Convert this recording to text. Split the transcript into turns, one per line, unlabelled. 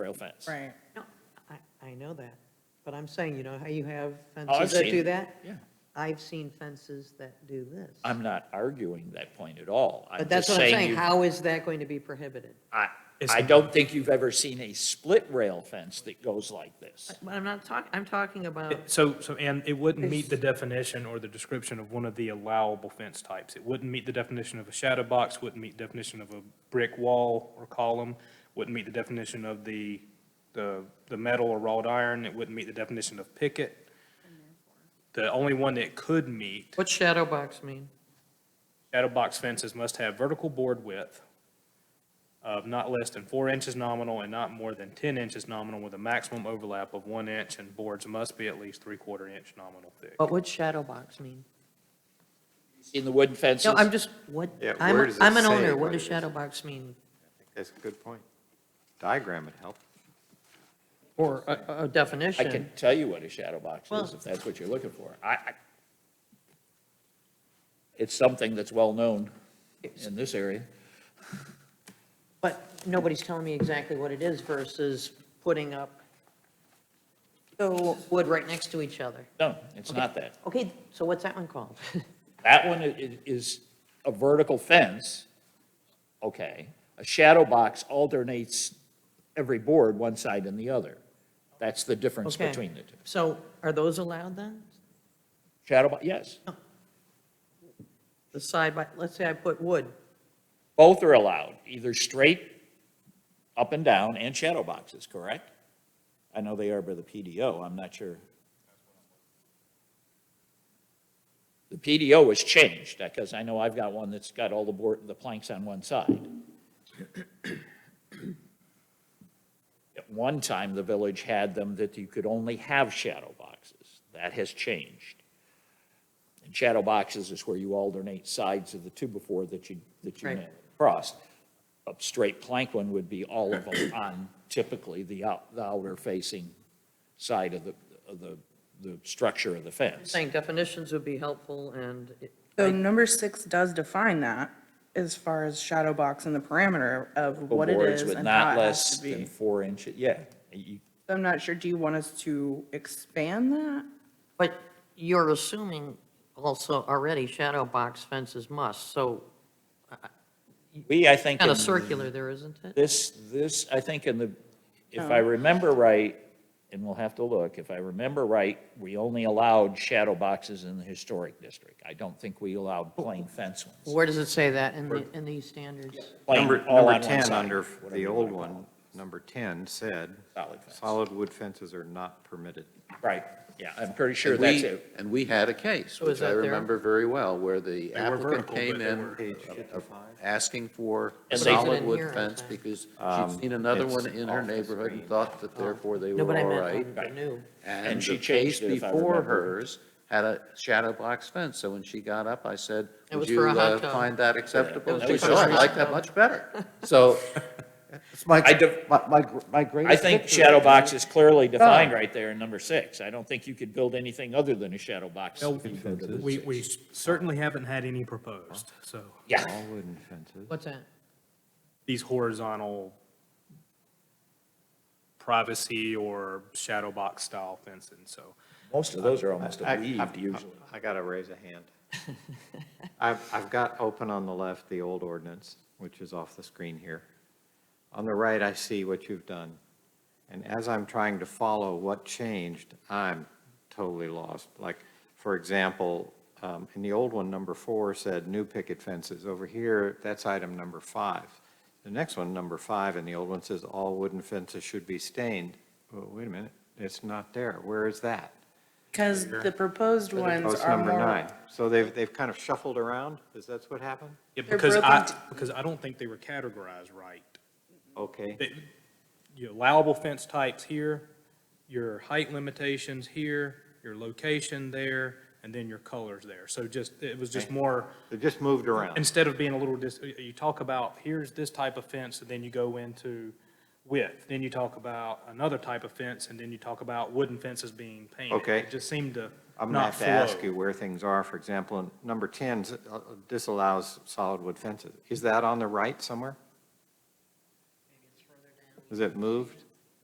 rail fence.
Right.
No, I, I know that, but I'm saying, you know how you have
Oh, I've
fences that
seen
do
it.
that?
Yeah.
I've seen fences that do this.
I'm not arguing that point at all.
But that's what I'm
just
saying,
you-
how is that going to be prohibited?
I, I don't think you've ever seen a split rail fence that goes like this.
But I'm not talking, I'm talking about,
It- So, so, and it wouldn't meet the definition or the description of one of the allowable fence types. It wouldn't meet the definition of a shadow box, wouldn't meet definition of a brick wall or column, wouldn't meet the definition of the, the, the metal or wrought iron, it wouldn't meet the definition of picket. The only one that could meet,
what's shadow box mean?
shadow box fences must have vertical board width of not less than four inches nominal and not more than ten inches nominal with a maximum overlap of one inch, and boards must be at least three-quarter inch nominal thick.
What would shadow box mean?
In the wooden fences.
No, I'm just, what,
Yeah, where
I'm,
does it
I'm an
say
owner,
what
what does
it is?
shadow box mean?
That's a good point. Diagram would help.
Or a, a
I
definition?
can tell you what a shadow box is,
Well-
if that's what you're looking for. I, I, it's something that's well-known in this area.
But nobody's telling me exactly what it is versus putting up
So,
wood right next to each other.
No, it's not that.
Okay, so what's that one called?
That one i- i- is a vertical fence, okay. A shadow box alternates every board, one side and the other. That's the difference
Okay.
between the two.
So are those allowed then?
Shadow, bo- yes,
The side by, let's say I put wood,
both are allowed, either straight, up and down, and shadow boxes, correct? I know they are by the PDO, I'm not sure. The PDO has changed, because I know I've got one that's got all the board, the planks on one side. At one time, the village had them that you could only have shadow boxes. That has changed. And shadow boxes is where you alternate sides of the two before that you, that you
Right.
nail across. A straight plank one would be all of them on typically the out, the outer facing side of the, of the, the structure of the fence.
saying definitions would be helpful and it-
so number six does define that as far as shadow box and the parameter of what it
Boards
is
with
and
not
how it has
less
to
than
be.
four inches, yeah. You-
So I'm not sure, do you want us to expand that?
But you're assuming also already shadow box fences must, so
We, I think.
kind of
in
circular there, isn't it?
This, this, I think in the, if
Oh.
I remember right, and we'll have to look, if I remember right, we only allowed shadow boxes in the historic district. I don't think we allowed plain fence ones.
Where does it say that in the, in these standards?
Plain,
Number,
all
number
on one
10
side,
under
whatever
the
you
old
wanna call
one, number 10 said,
it, Solid fence.
solid wood fences are not permitted.
Right, yeah, I'm pretty sure
And
that's
we-
it.
And we had a case,
Oh, is
which I
that there?
remember very well, where the
were
applicant
vertical,
came
but they
in
were-
Page
uh,
55.
asking for a
And they-
solid
Wasn't
wood
in here, I
fence
think.
because
Um,
she'd seen another
it's
one in her
off the
neighborhood and
screen.
thought that therefore they
Oh. No,
were
but I
all
meant
right.
on the new.
And
And
she
the
changed
case
it, if I
before
remember.
hers had a shadow box fence, so when she got up, I said,
It was
would
for
you
a hot
uh,
tub.
find that acceptable?
was
She
for
said,
a
"Oh, I
hot
like that
tub."
much better. So
It's my,
I div-
my- my, gr- my
I
greatest.
think
victory.
shadow box is clearly
Oh.
defined right there in number six. I don't think you could build anything other than a shadow box.
Well,
if you go to the
We,
six.
we certainly haven't had any proposed, so
Yeah,
All wooden fences.
What's that?
these horizontal privacy or shadow box style fencing, so.
most of those are almost
I-
a
I-
weaved
I-
usually.
I gotta raise a hand. I've, I've got open on the left the old ordinance, which is off the screen here. On the right, I see what you've done. And as I'm trying to follow what changed, I'm totally lost. Like, for example, um, in the old one, number four said new picket fences. Over here, that's item number five. The next one, number five, and the old one says all wooden fences should be stained. Well, wait a minute, it's not there. Where is that?
Because the proposed ones
Post
are
number nine.
more,
So they've, they've kind of shuffled around? Is that what happened?
Yeah,
They're
because I,
broken
because I don't think they were categorized right.
Okay.
They- Your allowable fence types here, your height limitations here, your location there, and then your colors there. So just, it was just more,
They just moved around.
instead of being a little, dis- you talk about, here's this type of fence, and then you go into width. Then you talk about another type of fence, and then you talk about wooden fences being painted.
Okay.
It just seemed to
I'm going to
not
have to
flow.
ask you where things are. For example, in number 10 s- uh, disallows solid wood fences. Is that on the right somewhere? Is it moved?